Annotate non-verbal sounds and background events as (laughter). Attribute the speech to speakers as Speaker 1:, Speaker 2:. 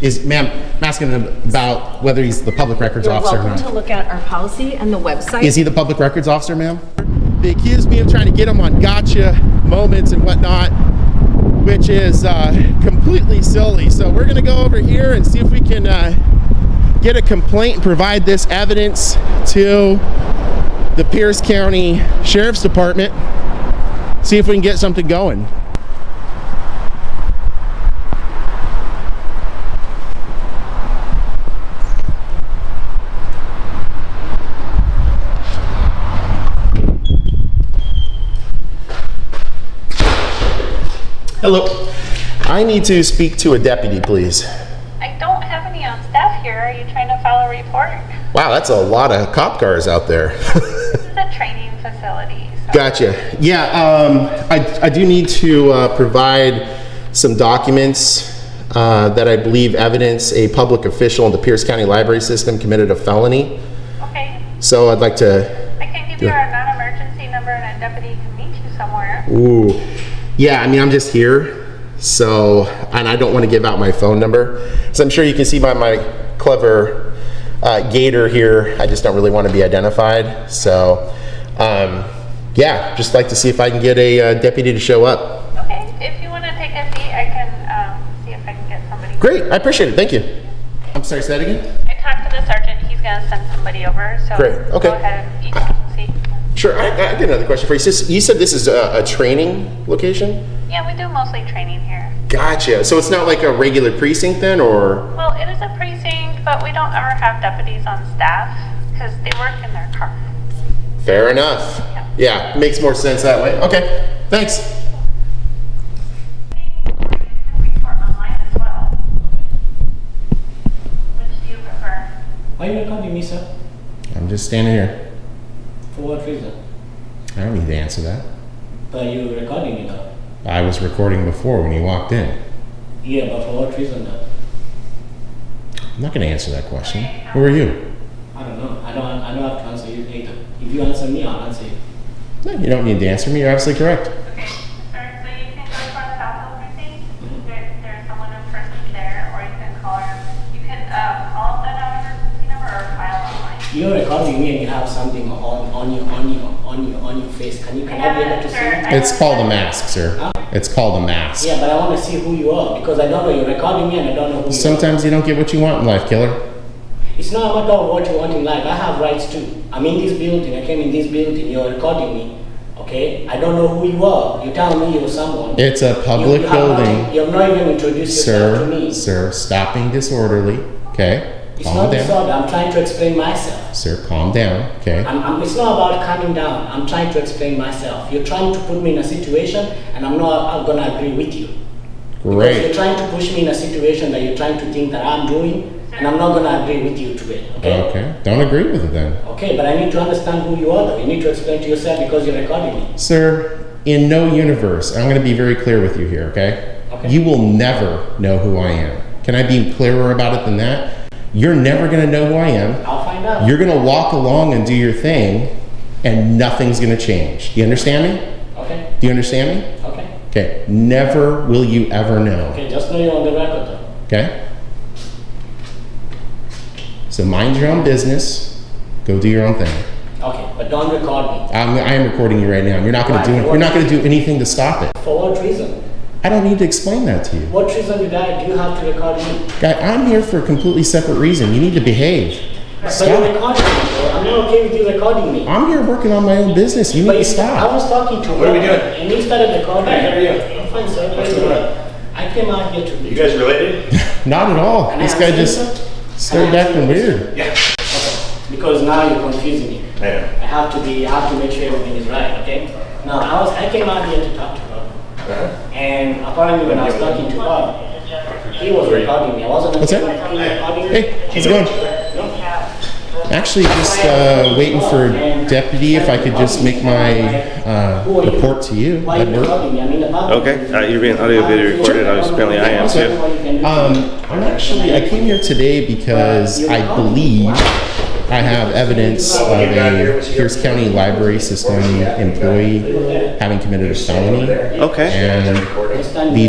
Speaker 1: is, ma'am, I'm asking him about whether he's the public records
Speaker 2: You're
Speaker 1: officer or
Speaker 2: welcome to
Speaker 1: not.
Speaker 2: look at our policy and the website.
Speaker 1: Is he the public records officer, ma'am? They accused me of trying to get him on gotcha moments and whatnot, which is uh, completely silly. So we're gonna go over here and see if we can uh, get a complaint and provide this evidence to the Pierce County Sheriff's Department. See if we can get something going. Hello. I need to speak to a deputy, please.
Speaker 3: I don't have any on staff here. Are you trying to file a report? (laughs)
Speaker 1: Wow, that's a lot of cop cars out there. (laughs)
Speaker 3: This is a training facility. so-
Speaker 1: gotcha. Yeah, um, I, I do need to uh, provide some documents uh, that I believe evidence a public official in the Pierce County Library System committed a felony.
Speaker 3: Okay.
Speaker 1: So I'd like to.
Speaker 3: I can give you
Speaker 1: Yeah.
Speaker 3: our non-emergency number and a deputy can meet you somewhere.
Speaker 1: Ooh. Yeah, I mean, I'm just here. So, and I don't want to give out my phone number. So I'm sure you can see by my clever uh, gator here, I just don't really want to be identified. So, um, yeah, just like to see if I can get a uh, deputy to show up.
Speaker 3: Okay. If you want to take a seat, I can um, see if I can get somebody.
Speaker 1: Great, I appreciate it. Thank you. I'm sorry, say that again?
Speaker 3: I talked to the sergeant. He's going to send somebody over. So
Speaker 1: Great, okay.
Speaker 3: go ahead and you can see.
Speaker 1: Sure, I, I got another question for you. Sis- You said this is a, a training location?
Speaker 3: Yeah, we do mostly training here.
Speaker 1: Gotcha. So it's not like a regular precinct then, or?
Speaker 3: Well, it is a precinct, but we don't ever have deputies on staff because they work in their car.
Speaker 1: Fair enough. Yeah, makes more sense that way. Okay, thanks.
Speaker 3: Report online as well. Which do you prefer?
Speaker 4: Why you recording me, sir?
Speaker 1: I'm just standing here.
Speaker 4: For what reason?
Speaker 1: I don't need to answer that.
Speaker 4: But you recording me now.
Speaker 1: I was recording before when you walked in.
Speaker 4: Yeah, but for what reason now?
Speaker 1: I'm not going to answer that question. Who are you?
Speaker 4: I don't know. I don't. I don't have to answer you later. If you answer me, I'll answer you.
Speaker 1: No, you don't need to answer me. You're absolutely correct.
Speaker 3: Okay, sir, so you can go to our South Hill precinct, there, there's someone in person there, or you can call her, you can, uh, call the non-emergency number or file online.
Speaker 4: You're recording me and you have something on on your on your on your on your face. Can you can I be able to see?
Speaker 3: Sir, I
Speaker 1: It's
Speaker 3: don't-
Speaker 1: called a mask, sir. It's called a mask.
Speaker 4: Yeah, but I want to see who you are because I don't know. You're recording me and I don't know who you are.
Speaker 1: Sometimes you don't get what you want in life, killer.
Speaker 4: It's not a matter of what you want in life. I have rights too. I'm in this building. I came in this building. You're recording me. Okay. I don't know who you are. You tell me you're someone.
Speaker 1: It's a public
Speaker 4: you, you have not-
Speaker 1: building.
Speaker 4: you have not even introduced yourself to
Speaker 1: Sir,
Speaker 4: me.
Speaker 1: sir, stopping disorderly. Okay?
Speaker 4: It's
Speaker 1: Calm
Speaker 4: not
Speaker 1: down.
Speaker 4: disorder. I'm trying to explain myself.
Speaker 1: Sir, calm down. Okay?
Speaker 4: I'm, I'm, it's not about calming down. I'm trying to explain myself. You're trying to put me in a situation, and I'm not I'm gonna agree with you. Because You're
Speaker 1: Great.
Speaker 4: trying to push me in a situation that you're trying to think that I'm doing, and I'm not gonna agree with you to it. Okay.
Speaker 1: Okay. Don't agree with it then.
Speaker 4: Okay, but I need to understand who you are. Though. You need to explain to yourself because you're recording me.
Speaker 1: Sir, in no universe, I'm going to be very clear with you here, okay?
Speaker 4: Okay.
Speaker 1: You will never know who I am. Can I be clearer about it than that? You're never going to know who I am.
Speaker 4: I'll find out.
Speaker 1: You're going to walk along and do your thing, and nothing's going to change. Do you understand me?
Speaker 4: okay.
Speaker 1: Do you understand me?
Speaker 4: Okay.
Speaker 1: Okay. Never will you ever know,
Speaker 4: Okay. Just know you're on the record. Though.
Speaker 1: okay? So mind your own business. Go do your own thing.
Speaker 4: Okay, but don't record me.
Speaker 1: I'm, I am recording you right now. You're not going to do it. You're not going to do anything to stop it.
Speaker 4: For what reason?
Speaker 1: I don't need to explain that to you.
Speaker 4: What reason did I do you have to record me?
Speaker 1: Guy, I'm here for a completely separate reason. You need to behave.
Speaker 4: But you're
Speaker 1: Stop.
Speaker 4: recording me, bro. I'm not okay with you recording me.
Speaker 1: I'm here working on my own business. You need
Speaker 4: But
Speaker 1: to
Speaker 4: you- I
Speaker 1: stop.
Speaker 4: was talking to
Speaker 5: What are we
Speaker 4: Robert,
Speaker 5: doing?
Speaker 4: And you started recording.
Speaker 5: Hey, how are you?
Speaker 4: I'm fine, sir.
Speaker 5: What's
Speaker 4: How are you
Speaker 5: going
Speaker 4: doing? I came out here to.
Speaker 5: You guys related?
Speaker 1: Not at all.
Speaker 4: Can I
Speaker 1: This guy
Speaker 4: answer you,
Speaker 1: just
Speaker 4: sir?
Speaker 1: started
Speaker 4: Can I answer
Speaker 1: acting
Speaker 4: you, sir?
Speaker 1: weird.
Speaker 5: Yeah.
Speaker 4: Because now you're confusing me.
Speaker 5: I know.
Speaker 4: I have to be, I have to make sure everything is right, okay? Now, I was, I came out here to talk to her.
Speaker 5: Uh-huh.
Speaker 4: And apparently when I was talking to her, he was recording me. I wasn't.
Speaker 1: What's that?
Speaker 4: He was recording me.
Speaker 1: Hey, how's it going? Actually, just uh, waiting for deputy. If I could just make my uh,
Speaker 4: Who are you?
Speaker 1: report to you,
Speaker 4: Why are
Speaker 1: that'd
Speaker 4: you
Speaker 1: work.
Speaker 4: recording me? I mean, the public-
Speaker 5: Okay, uh, you're being audio video recorded, I was- apparently I am,
Speaker 1: too. Um, I'm actually, I came here today because I believe I have evidence of a Pierce County Library System employee having committed a felony.
Speaker 5: Okay.
Speaker 1: And
Speaker 4: Understand
Speaker 1: the
Speaker 4: me.